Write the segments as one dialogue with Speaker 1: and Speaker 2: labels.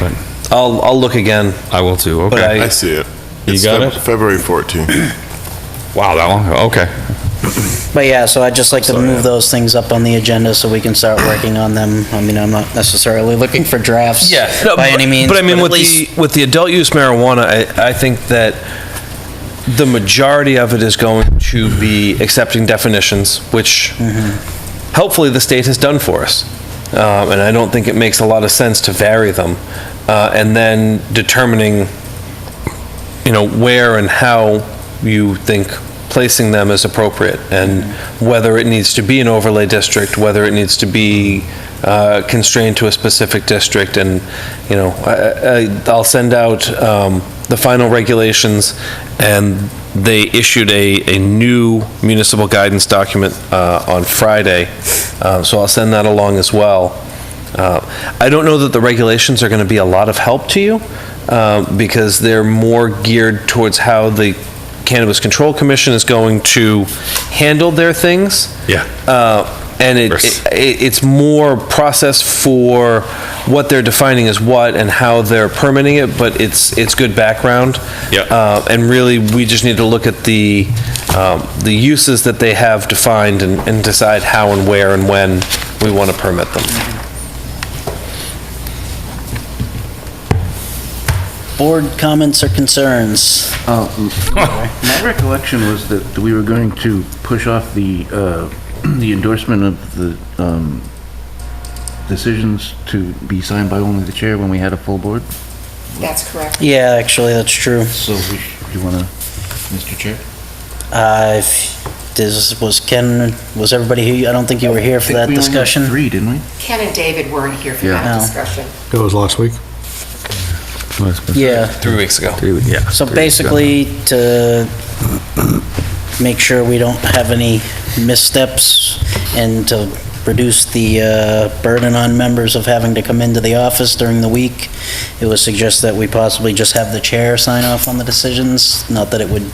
Speaker 1: Right.
Speaker 2: I'll, I'll look again.
Speaker 1: I will too,
Speaker 2: But
Speaker 1: okay.
Speaker 2: I-
Speaker 3: I see it.
Speaker 1: You
Speaker 3: It's
Speaker 1: got
Speaker 3: Feb-
Speaker 1: it?
Speaker 3: February 14th.
Speaker 1: Wow, that long, ago. okay.
Speaker 4: But yeah, so I'd just like to move those things up on the agenda so we can start working on them. I mean, I'm not necessarily looking for drafts
Speaker 2: No,
Speaker 4: by any
Speaker 2: but-
Speaker 4: means.
Speaker 2: But I mean,
Speaker 4: at
Speaker 2: with the,
Speaker 4: least-
Speaker 2: with the adult use marijuana, I, I think that the majority of it is going to be accepting definitions, which hopefully the state has done for us. Um, and I don't think it makes a lot of sense to vary them. Uh, and then determining, you know, where and how you think placing them is appropriate and whether it needs to be an overlay district, whether it needs to be uh, constrained to a specific district. And, you know, I- I- I'll send out um, the final regulations and they issued a, a new municipal guidance document uh, on Friday. Uh, So I'll send that along as well. Uh, I don't know that the regulations are going to be a lot of help to you uh, because they're more geared towards how the Cannabis Control Commission is going to handle their things.
Speaker 1: Yeah.
Speaker 2: Uh, And it,
Speaker 1: Yes.
Speaker 2: it, it's more process for what they're defining as what and how they're permitting it, but it's, it's good background.
Speaker 1: Yeah.
Speaker 2: Uh, And really, we just need to look at the, um, the uses that they have defined and, and decide how and where and when we want to permit them.
Speaker 4: Board comments or concerns?
Speaker 5: Uh, My recollection was that we were going to push off the, uh, the endorsement of the um, decisions to be signed by only the chair when we had a full board.
Speaker 6: That's correct.
Speaker 4: Yeah, actually, that's true.
Speaker 5: So we sh- you want to, Mr. Chair?
Speaker 4: Uh, if this was Ken, was everybody here? I don't think you were here for that
Speaker 5: I think
Speaker 4: discussion.
Speaker 5: we only had three, didn't we?
Speaker 6: Ken and David weren't here for
Speaker 5: Yeah.
Speaker 6: that
Speaker 4: No.
Speaker 6: discussion.
Speaker 7: That was last week?
Speaker 4: Yeah,
Speaker 2: Three weeks ago.
Speaker 1: Yeah.
Speaker 4: so basically to make sure we don't have any missteps and to reduce the uh, burden on members of having to come into the office during the week, it was suggested that we possibly just have the chair sign off on the decisions, not that it would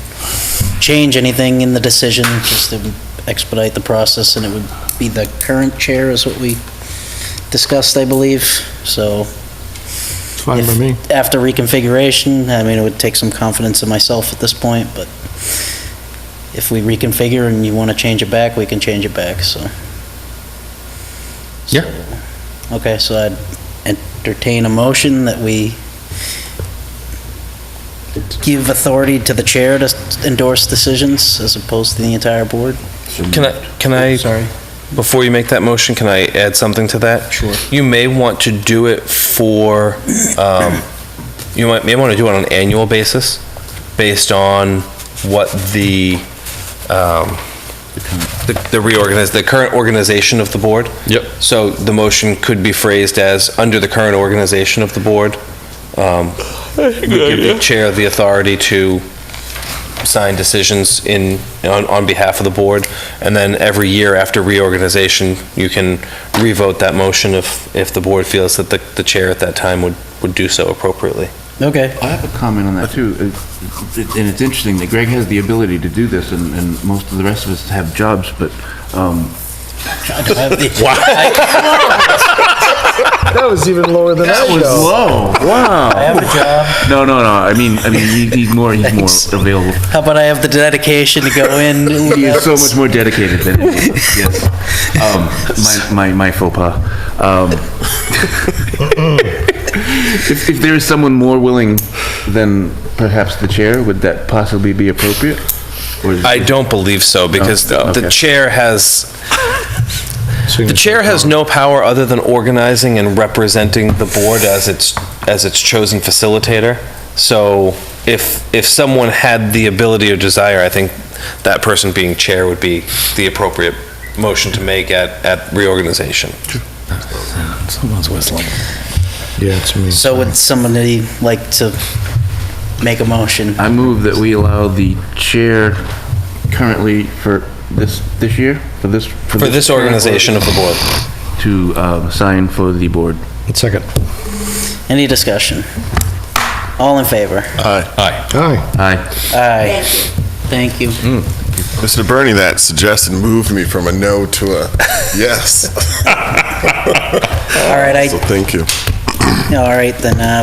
Speaker 4: change anything in the decision, just to expedite the process, and it would be the current chair is what we discussed, I believe, so
Speaker 7: It's fine by me.
Speaker 4: after reconfiguration, I mean, it would take some confidence in myself at this point, but if we reconfigure and you want to change it back, we can change it back, so.
Speaker 1: Yeah.
Speaker 4: So, Okay, so I'd entertain a motion that we give authority to the chair to endorse decisions as opposed to the entire board.
Speaker 2: Can I, can I,
Speaker 4: Sorry.
Speaker 2: before you make that motion, can I add something to that?
Speaker 4: Sure.
Speaker 2: You may want to do it for, um, you might, may want to do it on an annual basis, based on what the, um, the the reorganiz, the current organization of the board.
Speaker 1: Yep.
Speaker 2: So the motion could be phrased as, under the current organization of the board, um, we give the chair the authority to sign decisions in, on, on behalf of the board, and then every year after reorganization, you can revote that motion if, if the board feels that the, the chair at that time would, would do so appropriately.
Speaker 4: Okay.
Speaker 5: I have a comment on that too. Uh, it- And it's interesting that Greg has the ability to do this and, and most of the rest of us have jobs, but, um,
Speaker 4: I
Speaker 7: That was even lower than I was.
Speaker 5: whoa, wow.
Speaker 4: I have a job.
Speaker 5: No, no, no, I mean, I mean, he- he's more, he's
Speaker 4: Thanks.
Speaker 5: more available.
Speaker 4: How about I have the dedication to go in?
Speaker 5: He is so much more dedicated than me. yes. Um, my, my, my faux pas. Um, if, if there is someone more willing than perhaps the chair, would that possibly be appropriate? Or is-
Speaker 2: I don't believe so, because the the
Speaker 5: Okay.
Speaker 2: chair has, the chair has no power other than organizing and representing the board as its, as its chosen facilitator. So if, if someone had the ability or desire, I think that person being chair would be the appropriate motion to make at, at reorganization.
Speaker 7: Yeah, it's me.
Speaker 4: So would somebody like to make a motion?
Speaker 5: I move that we allow the chair currently for this, this year, for this.
Speaker 2: For this organization of the board.
Speaker 5: To, um, sign for the board.
Speaker 7: Second.
Speaker 4: Any discussion? All in favor?
Speaker 7: Aye.
Speaker 5: Aye.
Speaker 4: Aye.
Speaker 6: Thank you.
Speaker 4: Thank you.
Speaker 3: Mr. Bernie, that suggestion moved me from a no to a yes.
Speaker 4: All right,
Speaker 3: So
Speaker 4: I
Speaker 3: thank you.
Speaker 4: All right, then, uh,